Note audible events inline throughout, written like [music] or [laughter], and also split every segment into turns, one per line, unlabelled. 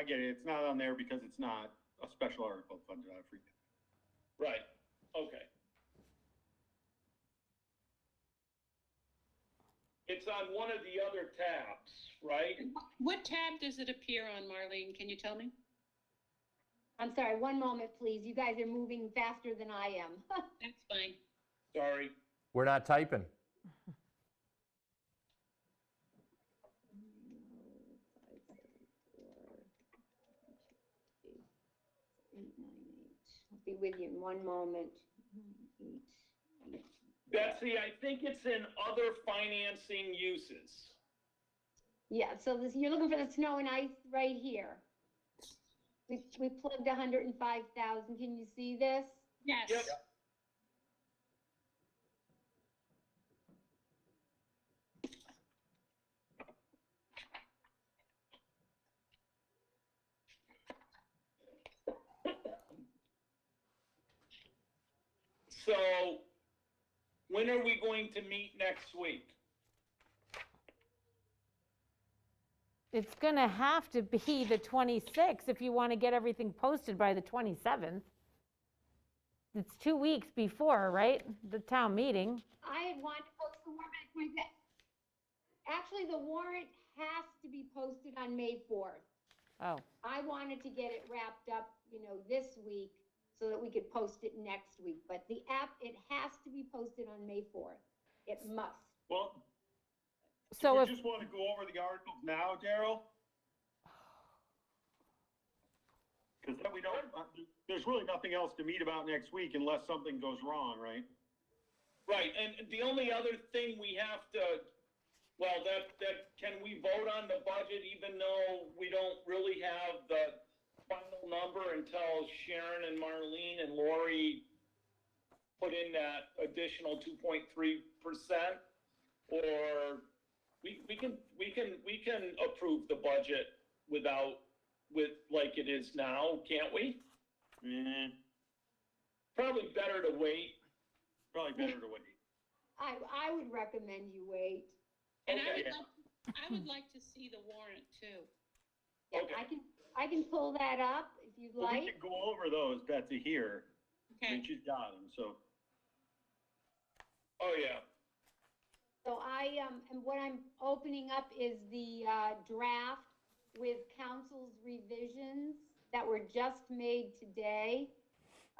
I get it, it's not on there because it's not a special article funded out of free cash.
Right, okay. It's on one of the other tabs, right?
What tab does it appear on, Marlene? Can you tell me?
I'm sorry, one moment, please. You guys are moving faster than I am. [laughs]
That's fine.
Sorry,
We're not typing.
Eight, nine, eight. I'll be with you in one moment. Nine, eight, eight.
Betsy, I think it's in other financing uses.
Yeah, so this, you're looking for the snow and ice right here. We, we plugged hundred and five thousand. Can you see this?
Yep.
Yes,
So, when are we going to meet next week?
It's going to have to be the 26th if you want to get everything posted by the 27th. It's two weeks before, right? The town meeting.
I had wanted to post the warrant. at my ba- Actually, the warrant has to be posted on May fourth.
Oh,
I wanted to get it wrapped up, you know, this week so that we could post it next week. But the app, it has to be posted on May 4th. It must.
Well, do
so
we
if,
just want to go over the articles now, Daryl? [sighs] Because then we don't, uh, there's really nothing else to meet about next week unless something goes wrong, right?
Right, and the only other thing we have to, well, that, that, can we vote on the budget even though we don't really have the final number until Sharon and Marlene and Lori put in that additional two point three percent? Or we, we can, we can, we can approve the budget without, with, like it is now, can't we?
Eh,
Probably better to wait.
probably better to wait.
I, I would recommend you wait.
and I would
Okay.
like, I would like to see the warrant too.
Yeah,
Okay.
I can, I can pull that up if you'd
Well,
like.
We can go over those, Betsy, here. I mean,
Okay,
she's got them, so.
Oh, yeah.
So I, um, and what I'm opening up is the, uh, draft with council's revisions that were just made today.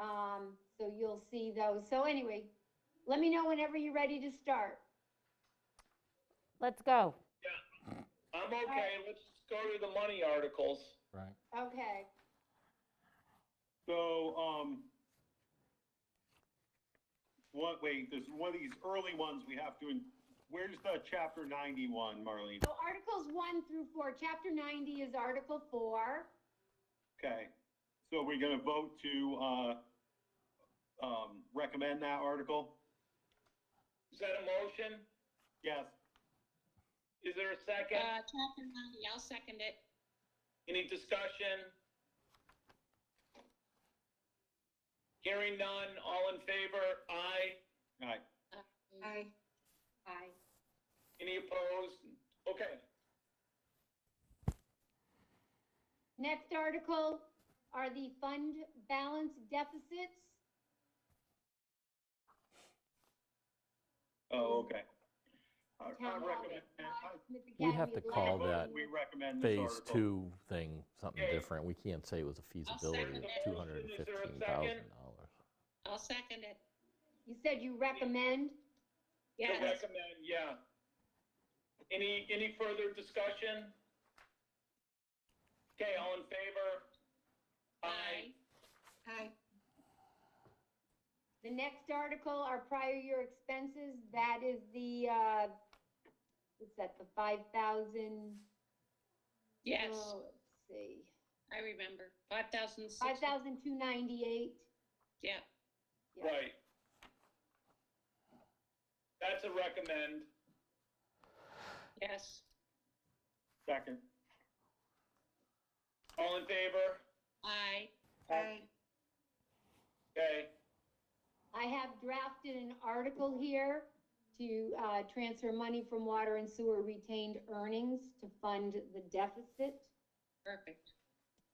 Um, so you'll see those. So anyway, let me know whenever you're ready to start.
let's go.
I'm okay, let's go to the money articles.
Right.
Okay.
So, um, what, wait, there's one of these early ones we have to, in- where's the chapter ninety-one, Marlene?
So Articles 1 through 4, Chapter 90 is Article 4.
Okay, so we're gonna vote to, uh, um, recommend that article?
Is that a motion?
Yes,
Is there a
uh,
second?
chapter ninety, I'll second it.
Any discussion? Hearing none, all in favor? Aye.
alright,
Aye. Aye.
Any opposed? Okay,
Next article are the fund balance deficits.
oh, okay. I- I
Town
recommend- I-
hall. Smith
We have
Academy
to
of
call
Library.
that
We recommend this
phase
article.
two thing, something
Okay.
different. We can't say it was a feasibility
second
of
that
two
motion.
hundred and
Is there a
fifteen
second?
thousand dollars.
I'll second it.
You said you recommend.
to
Yes,
recommend, yeah. Any, any further discussion? Okay, all in favor?
aye. Aye.
The next article are prior year expenses. That is the, uh, what's that, the 5,000?
Yes,
Oh, Let's see,
I remember. Five thousand six.
5,298.
Yeah,
Yeah.
Right. That's a recommend.
yes,
Second,
All in favor?
aye.
Aye. Okay.
I have drafted an article here to uh, transfer money from water and sewer retained earnings to fund the deficit.
Perfect.